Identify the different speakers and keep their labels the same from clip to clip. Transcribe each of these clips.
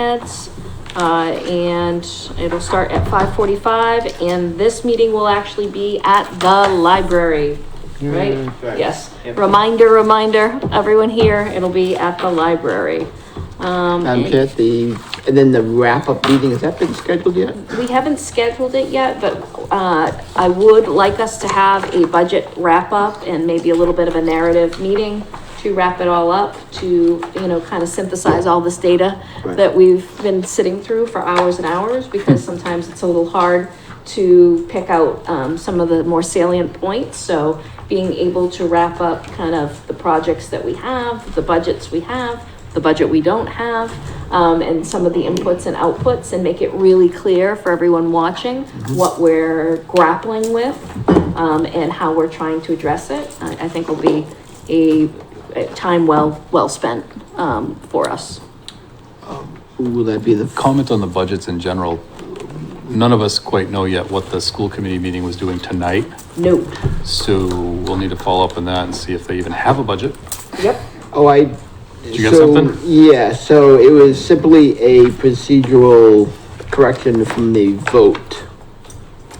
Speaker 1: heads. Uh, and it'll start at five forty-five, and this meeting will actually be at the library, right?
Speaker 2: Right.
Speaker 1: Yes,
Speaker 2: Yep.
Speaker 1: reminder, reminder, everyone here, it'll be at the library. Um,
Speaker 3: Madam
Speaker 1: and-
Speaker 3: Chair, the, and then the wrap-up meeting, has that been scheduled yet?
Speaker 1: we haven't scheduled it yet, but, uh, I would like us to have a budget wrap-up and maybe a little bit of a narrative meeting to wrap it all up, to, you know, kind of synthesize all this data
Speaker 3: Right.
Speaker 1: that we've been sitting through for hours and hours, because sometimes it's a little hard to pick out, um, some of the more salient points, so being able to wrap up kind of the projects that we have, the budgets we have, the budget we don't have, um, and some of the inputs and outputs and make it really clear for everyone watching what we're grappling with, um, and how we're trying to address it. I, I think will be a, a time well, well spent, um, for us.
Speaker 3: Will that be the,
Speaker 4: Comment on the budgets in general. None of us quite know yet what the school committee meeting was doing tonight,
Speaker 1: Note.
Speaker 4: so we'll need to follow up on that and see if they even have a budget.
Speaker 1: Yep.
Speaker 3: oh, I.
Speaker 4: you got
Speaker 3: so-
Speaker 4: something?
Speaker 3: Yeah, so it was simply a procedural correction from the vote.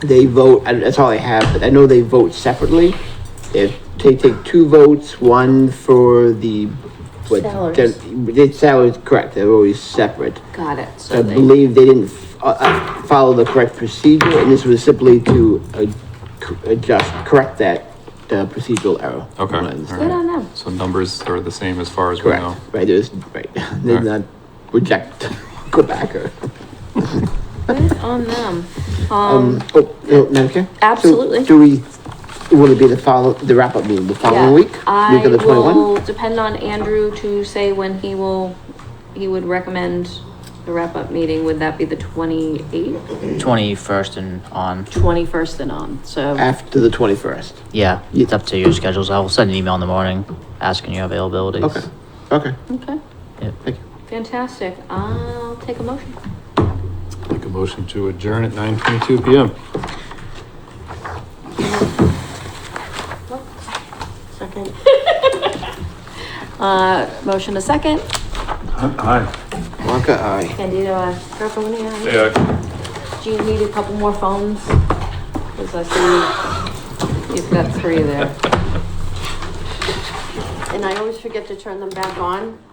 Speaker 3: They vote, and that's all I have, but I know they vote separately. They have- they take two votes, one for the. what-
Speaker 1: Salaries.
Speaker 3: The salaries, correct, they're always separate.
Speaker 1: Got it. So
Speaker 3: I
Speaker 1: they-
Speaker 3: believe they didn't f- uh, uh, follow the correct procedure, and this was simply to uh, c- adjust, correct that uh, procedural error. from what
Speaker 4: Okay,
Speaker 3: I
Speaker 4: all
Speaker 3: understand.
Speaker 1: Good on them.
Speaker 4: So numbers are the same as far as we know.
Speaker 3: Correct, right, there's, right, they did not
Speaker 4: Alright.
Speaker 3: reject, go back or.
Speaker 1: Good on them.
Speaker 3: Um,
Speaker 1: Um,
Speaker 3: oh, no, Madam Chair? So
Speaker 1: absolutely.
Speaker 3: Do we, will it be the follow, the wrap-up meeting, the
Speaker 1: yeah,
Speaker 3: following week?
Speaker 1: I
Speaker 3: Week of the 21?
Speaker 1: will depend on Andrew to say when he will, he would recommend the wrap-up meeting. Would that be the twenty-eighth?
Speaker 5: Twenty-first and on.
Speaker 1: 21st and on, so.
Speaker 3: After the twenty-first?
Speaker 5: Yeah,
Speaker 3: Ye-
Speaker 5: it's up to your schedules. I will send an email in the morning asking your availabilities.
Speaker 3: Okay, okay,
Speaker 1: Okay,
Speaker 5: Yep.
Speaker 3: thank you.
Speaker 1: fantastic. I'll take a motion.
Speaker 4: Make a motion to adjourn at nine twenty-two PM.
Speaker 1: Second. Uh, motion a second.
Speaker 4: Aye.
Speaker 3: Wonka, aye.
Speaker 1: Candido, uh, Purple, yeah. Do you need a couple more phones? Because I see you've got three there.
Speaker 6: And I always forget to turn them back on